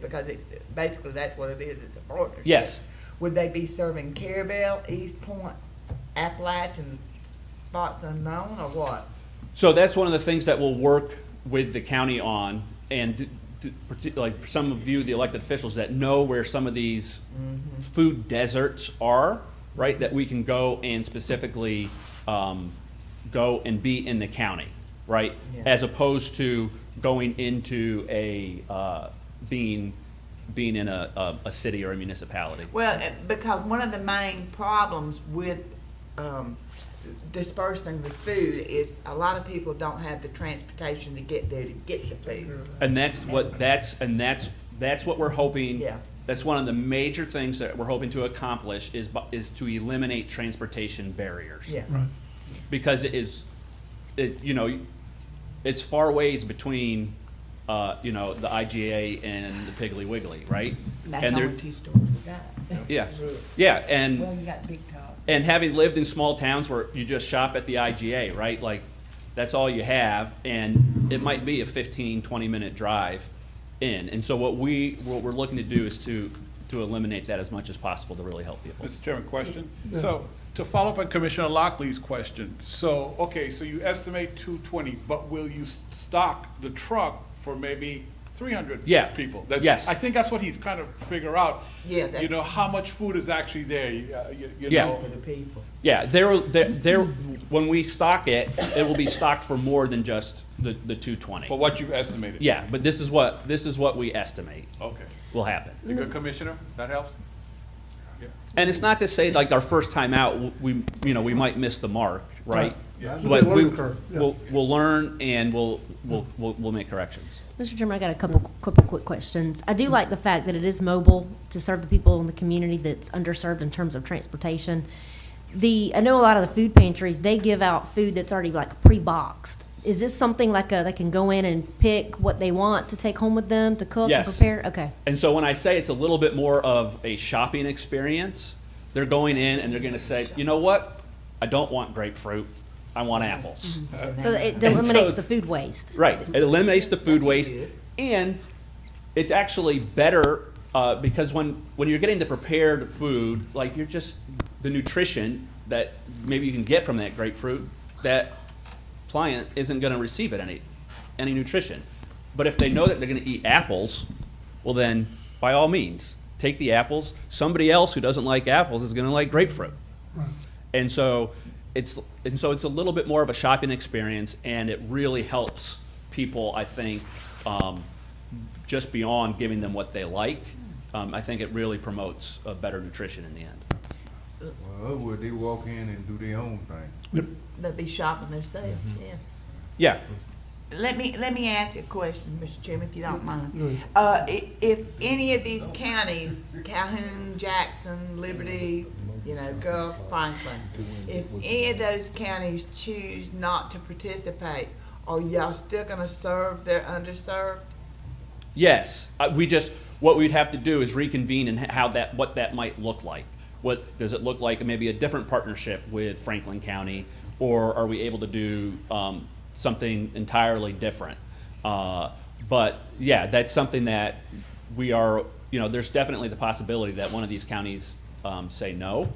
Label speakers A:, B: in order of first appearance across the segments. A: because it, basically that's what it is, it's a partnership.
B: Yes.
A: Would they be serving Carabel, East Point, Appalachian, spots unknown, or what?
B: So that's one of the things that we'll work with the county on, and d- d- parti- like some of you, the elected officials that know where some of these food deserts are, right, that we can go and specifically um, go and be in the county, right?
A: Yeah.
B: As opposed to going into a, uh, being, being in a, a a city or a municipality.
A: Well, eh, because one of the main problems with um, dispersing the food is a lot of people don't have the transportation to get there to get the food.
B: And that's what, that's, and that's, that's what we're hoping.
A: Yeah.
B: That's one of the major things that we're hoping to accomplish is, bu- is to eliminate transportation barriers.
A: Yeah.
C: Right.
B: Because it is, it, you know, it's far ways between, uh, you know, the IGA and the Piggly Wiggly, right?
A: That's
B: And
A: the
B: they're-
A: only two stores we got.
B: Yeah, yeah, and.
A: Well, you got Big Top.
B: And having lived in small towns where you just shop at the IGA, right? Like, that's all you have, and it might be a 15, 20-minute drive in. And so what we, what we're looking to do is to, to eliminate that as much as possible to really help people.
D: Mr. Chairman, question? So, to follow up on Commissioner Lockley's question, so, okay, so you estimate two twenty, but will you s- stock the truck for maybe three hundred
B: Yeah.
D: people? That's-
B: Yes.
D: I think that's what he's kind of figure out.
A: Yeah, that-
D: You know, how much food is actually there, you, uh, you- you
B: Yeah.
D: know?
A: For the people.
B: Yeah, there, there, there- when we stock it, it will be stocked for more than just the, the
D: For
B: 220.
D: what you've estimated?
B: Yeah, but this is what, this is what we estimate
D: Okay.
B: will happen.
D: You good, Commissioner? That helps? Yeah.
B: And it's not to say like our first time out, we, you know, we might miss the mark, right?
D: Yeah.
B: But
C: Yeah.
B: we,
C: Learning curve, yeah.
B: we'll, we'll learn and we'll, we'll, we'll, we'll make corrections.
E: Mr. Chairman, I got a couple, couple quick questions. I
B: Mm-hmm.
E: do like the fact that it is mobile to serve the people in the community that's underserved in terms of transportation. The, I know a lot of the food pantries, they give out food that's already like pre-boxed. Is this something like a, they can go in and pick what they want to take home with them to cook and
B: Yes.
E: prepare? Okay.
B: And so when I say it's a little bit more of a shopping experience, they're going in and they're gonna say, you know what? I don't want grapefruit, I want
A: Mm-hmm.
B: apples.
E: So it
B: so-
E: eliminates the food waste.
B: Right, it eliminates the food waste,
A: good.
B: and it's actually better, uh, because when, when you're getting the prepared food, like you're just, the nutrition that maybe you can get from that grapefruit, that client isn't gonna receive it any, any nutrition. But if they know that they're gonna eat apples, well then, by all means, take the apples. Somebody else who doesn't like apples is gonna like grapefruit. And so it's and so it's a little bit more of a shopping experience, and it really helps people. I think um, just beyond giving them what they like, um, I think it really promotes a better nutrition in the end.
F: Well, otherwise they walk in and do their own thing.
A: They'll be shopping themselves,
E: Mm-hmm.
A: yeah.
B: Yeah,
A: Let me, let me ask you a question, Mr. Chairman, if you don't
C: Go
A: mind.
C: ahead.
A: Uh, i- if any of these counties, Calhoun, Jackson, Liberty, you know, Gulf, Franklin, if any of those counties choose not to participate, are y'all still gonna serve their underserved?
B: yes. Uh, we just what we'd have to do is reconvene and how that what that might look like. What does it look like? Maybe a different partnership with Franklin County, or are we able to do um, something entirely different? Uh, But yeah, that's something that we are, you know, there's definitely the possibility that one of these counties um, say no.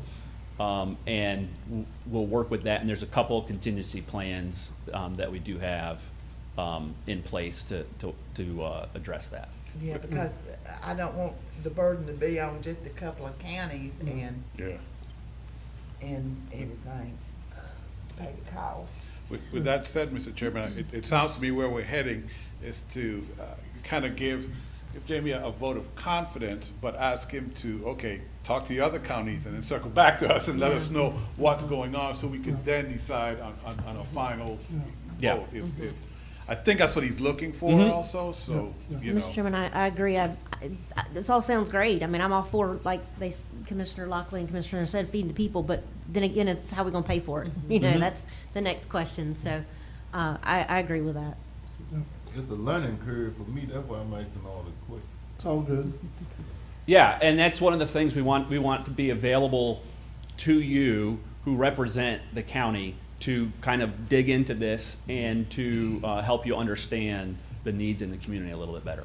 B: Um, And w- we'll work with that, and there's a couple contingency plans um, that we do have um, in place to, to, to uh, address that.
A: Yeah, because I don't want the burden to be on just a couple of counties and,
D: Yeah.
A: and everything. uh, Pay the cost.
D: With, with that said, Mr. Chairman, it, it sounds to me where we're heading is to kind of give, give Jamie a a vote of confidence, but ask him to, okay, talk to the other counties and then circle back to us and let us know what's going on, so we can then decide on, on, on a final
B: Yeah.
D: vote. if- if- I think that's what he's looking for also, so, you know.
E: Mr. Chairman, I, I agree. I, I, this all sounds great. I mean, I'm all for, like, they, s- Commissioner Lockley and Commissioner said, feeding the people, but then again, it's how we gonna pay for it? You
D: Mm-hmm.
E: know, that's the next question, so, uh, I, I agree with that.
F: It's a learning curve for me, that's why I'm asking all the questions.
C: It's all good.
B: Yeah, and that's one of the things we want, we want to be available to you who represent the county to kind of dig into this and to uh, help you understand the needs in the community a little bit better.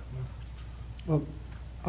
C: Well,